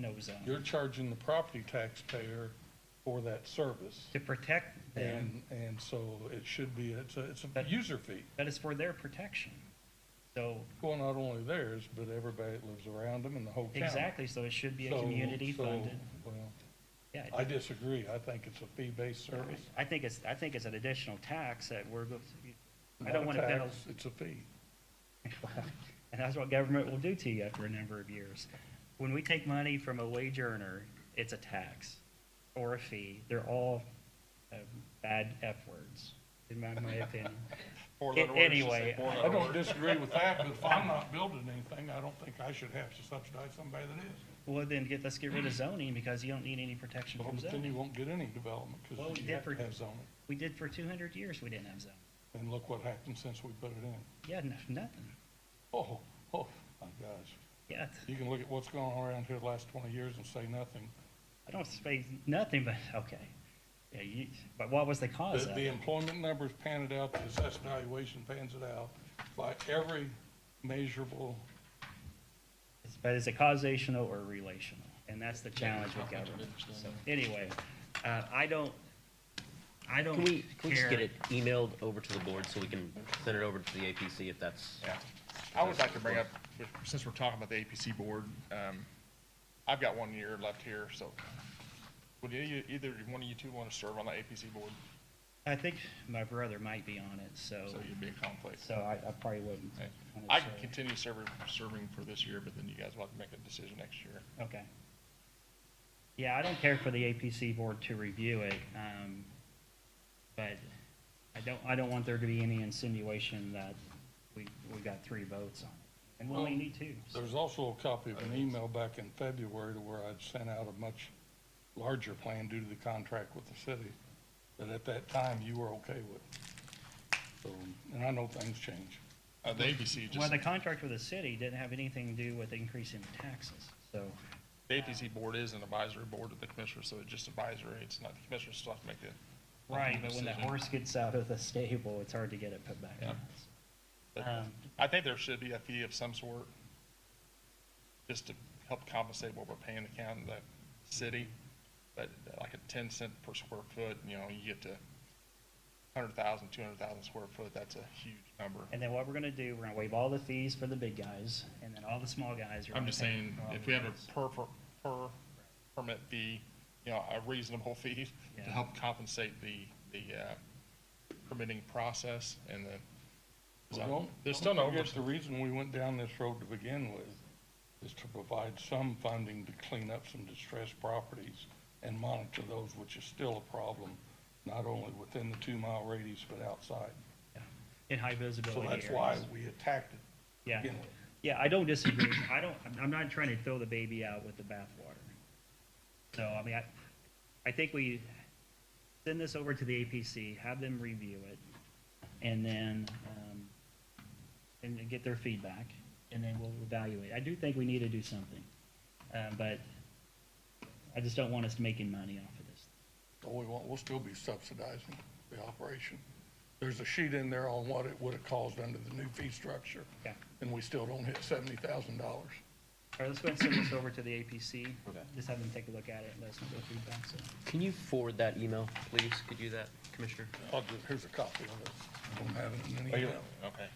no zone, You're charging the property taxpayer for that service. to protect them, And, and so it should be, it's a, it's a But- user fee. that is for their protection. So, Well, not only theirs, but everybody that lives around them and the whole county. exactly, so it should be a So- community so, funded, Well, yeah. it- I disagree. I think it's a fee-based service. I think it's, I think it's an additional tax that we're, go- I not a don't wanna penal, tax, It's a fee. and that's what government will do to you after a number of years. When we take money from a wage earner, it's a tax or a fee. They're all uh, bad F words, in my, my opinion. Four-letter A- words, just say anyway, four-letter I don't words. disagree with that, but if I'm not building anything, I don't think I should have to subsidize somebody that is. Well, then get, let's get rid of zoning because you don't need any protection Well, from But then you zoning. won't get any development Well, because we you did have to for- have zoning. We did for two hundred years, we didn't have zoning. And look what happened since we put it in. Yeah, n- nothing. Oh, oh, my gosh. Yeah, You can look at what's going on around here the last twenty years and say nothing. I don't say nothing, but, okay. Yeah, you, but what was the cause The, of the it? employment numbers pan it out, the assessed valuation pans it out by every measurable. It's- But is it causational or relational? And that's the challenge with government. So anyway, uh, I don't, I don't Can we, can we just get care. it emailed over to the board so we can send it over to the APC if that's, Yeah. I would like to bring up, since we're talking about the APC board, um, I've got one year left here, so would you, either one of you two want to serve on the APC board? I think my brother might be on it, so, So you'd be a conflict. so I, I probably wouldn't. Okay. on it, I can so- continue serving, serving for this year, but then you guys will have to make a decision next year. Okay. Yeah, I don't care for the APC board to review it, um, but I don't, I don't want there to be any insinuation that we, we got three votes on it. And we only need two. so- There's also a copy of an email back in February to where I'd sent out a much larger plan due to the contract with the city that at that time you were okay with. So, and I know things change. Uh, the APC Well, just, the contract with the city didn't have anything to do with increasing taxes, so, the APC board is an advisory board of the commissioner, so it's just advisory. It's not, the commissioners still have to make the. right, but when the decision. horse gets out of the stable, it's hard to get it put back Yeah. on. But Um, I think there should be a fee of some sort, just to help compensate what we're paying the county, the city. But like a ten cent per square foot, you know, you get to hundred thousand, two hundred thousand square foot, that's a huge number. And then what we're gonna do, we're gonna waive all the fees for the big guys, and then all the small guys are. I'm just gonna pay saying, for all if the we have guys. a per, per, per permit fee, you know, a reasonable fee Yeah. to help compensate the, the, uh, permitting process and the. Well, There's still no. don't forget The reason we went down this road to begin with is to provide some funding to clean up some distressed properties and monitor those, which is still a problem, not only within the two-mile radius, but outside. Yeah. In high So visibility areas. that's why we attacked it. Yeah, begin with. yeah, I don't disagree. I don't, I'm- I'm not trying to throw the baby out with the bathwater. So, I mean, I, I think we send this over to the APC, have them review it, and then, um, and then get their feedback, and then we'll evaluate. I do think we need to do something, uh, but I just don't want us making money off of this. But we won't, we'll still be subsidizing the operation. There's a sheet in there on what it would have caused under the new fee structure, Okay. and we still don't hit seventy thousand dollars. All right, let's go ahead and send this over to the APC. Just have them take a look at it, and let us know their feedback, so. can you forward that email, please? Could you do that, Commissioner? I'll just, here's a copy of it. I don't have it in any email. Okay.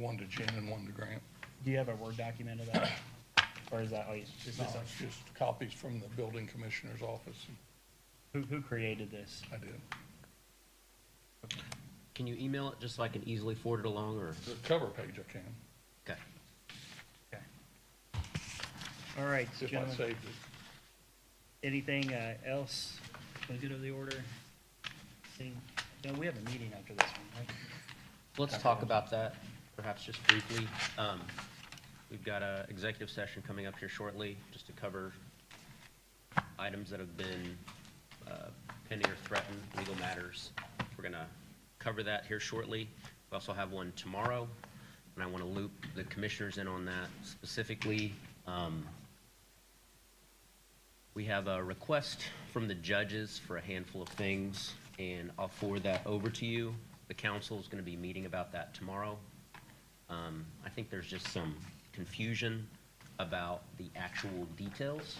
One to Jen and one to Grant. Do you have a Word document of that? Or is that, oh, it's just, No, it's just copies from the building commissioner's office. who, who created this? I did. Can you email it just so I can easily forward it along or, The cover page I can, okay? Okay. All right, if I gentlemen, saved it. anything, uh, else? Wanna get over the order? Any- No, we have a meeting after this one, right? Let's talk about that, perhaps just briefly. Um, We've got a executive session coming up here shortly, just to cover items that have been uh, pending or threatened, legal matters. We're gonna cover that here shortly. We also have one tomorrow, and I want to loop the commissioners in on that specifically. Um, we have a request from the judges for a handful of things, and I'll forward that over to you. The council is going to be meeting about that tomorrow. Um, I think there's just some confusion about the actual details